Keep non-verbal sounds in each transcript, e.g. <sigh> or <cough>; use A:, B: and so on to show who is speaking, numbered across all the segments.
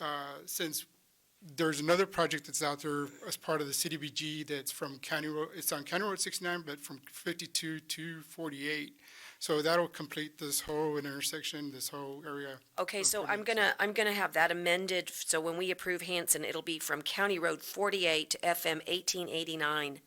A: uh, since there's another project that's out there as part of the CDBG that's from County Road, it's on County Road sixty-nine, but from fifty-two to forty-eight. So that'll complete this whole intersection, this whole area.
B: Okay,
A: Or
B: so I'm
A: 48.
B: gonna, I'm gonna have that amended, f- so when we approve Hanson, it'll be from County Road forty-eight to FM eighteen eighty-nine.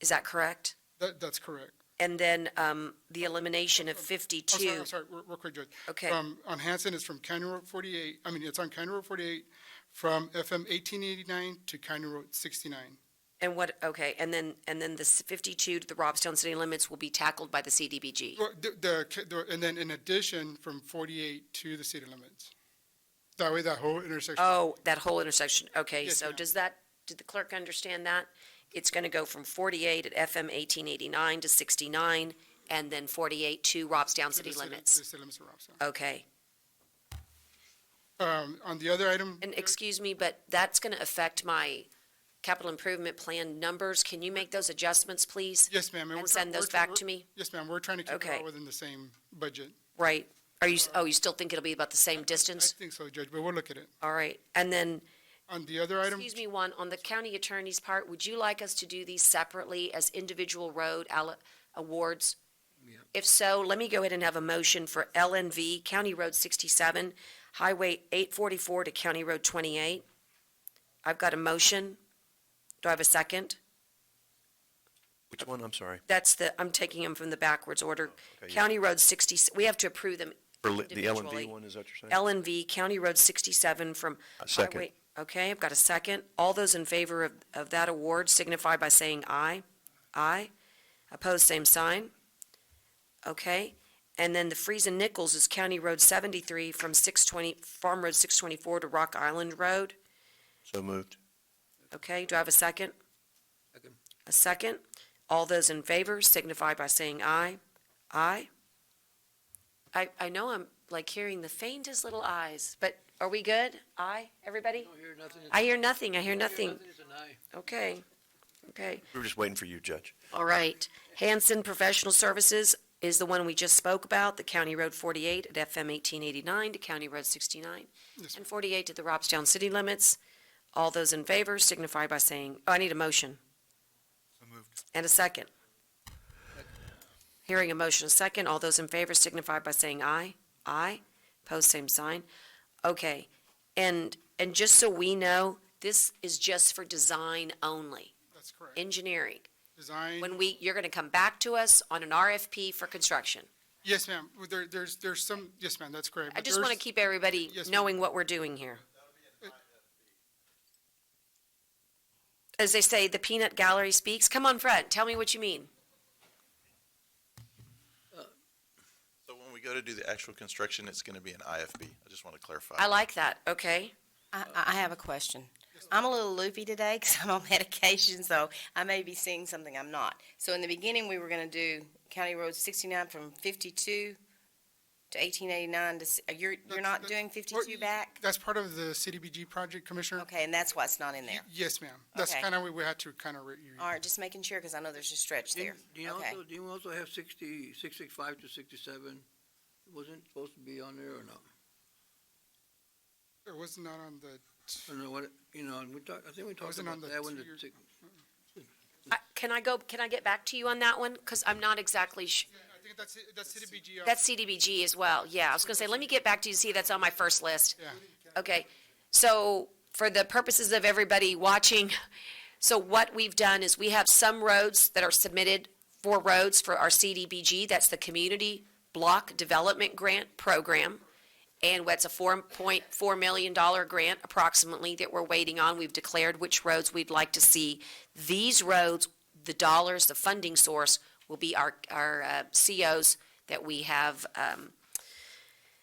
B: Is that correct?
A: That, that's correct.
B: And then, um, the elimination of
A: I'm Oh, sorry, Um,
B: fifty-two,
A: I'm sorry, real real quick, Judge.
B: okay,
A: From, on Hanson, it's from County Road forty-eight, I mean, it's on County Road forty-eight, from FM eighteen eighty-nine to County Road sixty-nine.
B: and what, okay, and then, and then the s- fifty-two to the Robstown city limits will be tackled by the CDBG.
A: Well, the- The, ca- the- and then in addition, from forty-eight to the city limits. That way, that whole intersection.
B: Oh, that whole intersection, okay,
A: Yes,
B: so
A: ma'am.
B: does that, did the clerk understand that? It's gonna go from forty-eight at FM eighteen eighty-nine to sixty-nine, and then forty-eight to Robstown
A: to the
B: city
A: The
B: limits,
A: city limits of Robstown.
B: okay.
A: Um, on the other item.
B: And excuse me, but that's going to affect my capital improvement plan numbers. Can you make those adjustments, please?
A: Yes, ma'am. we're
B: And
A: try-
B: send
A: we're
B: those
A: try-
B: back
A: we're-
B: to me?
A: Yes, ma'am. We're trying to keep it
B: Okay.
A: all within the same budget.
B: Right? Are you, oh, you still think it'll be about the same
A: I
B: distance?
A: think so, Judge, but we'll look at it.
B: All right. And then,
A: On the other item,
B: excuse me, one, on the county attorney's part, would you like us to do these separately as individual road alle- awards? If so, let me go ahead and have a motion for LNV, County Road 67, Highway 844 to County Road 28. I've got a motion. Do I have a second?
C: Which one? I'm sorry.
B: That's the, I'm taking them from the backwards order.
C: okay, yeah.
B: County Road 60, we have to approve them.
C: For li- the L and
B: Individually.
C: D one, is that what you're saying?
B: L and V, County Road 67 from.
C: A second.
B: Highway- Okay, I've got a second. All those in favor of, of that award signify by saying aye. Aye. Opposed, same sign. Okay. And then the Friesen Nichols is County Road 73 from 620, Farm Road 624 to Rock Island Road.
C: So moved.
B: Okay, do I have a second? A second. All those in favor signify by saying aye. Aye. I, I know I'm like hearing the faintest little ayes, but are we good? Aye, everybody?
D: Don't hear nothing.
B: I hear nothing, I hear nothing.
D: Nothing is an aye.
B: Okay, okay.
C: We were just waiting for you, Judge.
B: All right. Hanson Professional Services is the one we just spoke about, the County Road 48 at FM 1889 to County Road 69,
A: Yes,
B: and 48 to the Robstown city limits. All those in favor signify by saying, oh, I need a motion. And a second. Hearing a motion, a second. All those in favor signify by saying aye. Aye. Post same sign. Okay. And, and just so we know, this is just for design only,
A: that's correct.
B: engineering.
A: Design,
B: When we, you're gonna come back to us on an RFP for construction.
A: yes, ma'am. Well, There, there's, there's some, yes, ma'am, that's correct.
B: I
A: but
B: just wanna
A: there's-
B: keep everybody
A: Yes, ma'am.
B: knowing what we're doing here. As they say, the peanut gallery speaks. Come on, Fred, tell me what you mean.
E: So when we go to do the actual construction, it's going to be an IFB. I just want to clarify.
B: I like that, okay?
F: I, I I have a question. I'm a little loopy today <laughs> because I'm on medication, so I may be seeing something I'm not. So in the beginning, we were going to do County Road 69 from 52 to 1889. To, s- uh, you're, you're
A: That's-
F: not
A: that's-
F: doing
A: well,
F: 52 back?
A: That's part of the CDBG project, Commissioner.
F: Okay, and that's why it's not in there.
A: Yes, ma'am. That's
F: Okay.
A: kind of, we had to kind of.
F: All right, just making sure because I know there's a stretch there.
D: Didn't- Do you
F: Okay.
D: also, do you also have sixty, six six five to sixty-seven? Wasn't it supposed to be on there or not?
A: It was not on the,
D: I don't know what, it- you know, and we talked, I think we talked
A: Wasn't on
D: about
A: the
D: that one.
A: two-year-
D: that six-
B: I- Can I go, can I get back to you on that one? Cause I'm not exactly sh-
A: I think that's, that's CDBG.
B: That's CDBG as well, yeah. I was gonna say, let me get back to you, see, that's on my first list. Okay, so for the purposes of everybody watching, so what we've done is we have some roads that are submitted for roads for our CDBG, that's the Community Block Development Grant Program. And what's a four point four million dollar grant approximately that we're waiting on. We've declared which roads we'd like to see. These roads, the dollars, the funding source will be our, our uh, COs that we have, um,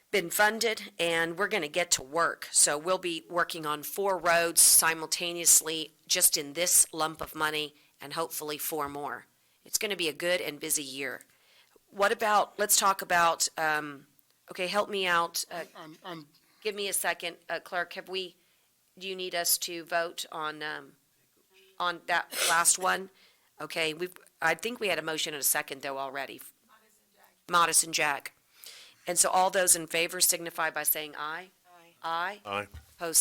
B: been funded and we're going to get to work. So we'll be working on four roads simultaneously just in this lump of money and hopefully four more. It's going to be a good and busy year. What about, let's talk about, um, okay, help me out. Uh,
A: On, on,
B: give me a second, uh, clerk. Have we, do you need us to vote on, um, on that last one? Okay, we've, I think we had a motion and a second though already. Modis and Jack. And so all those in favor signify by saying aye. Aye. Aye.
C: Aye.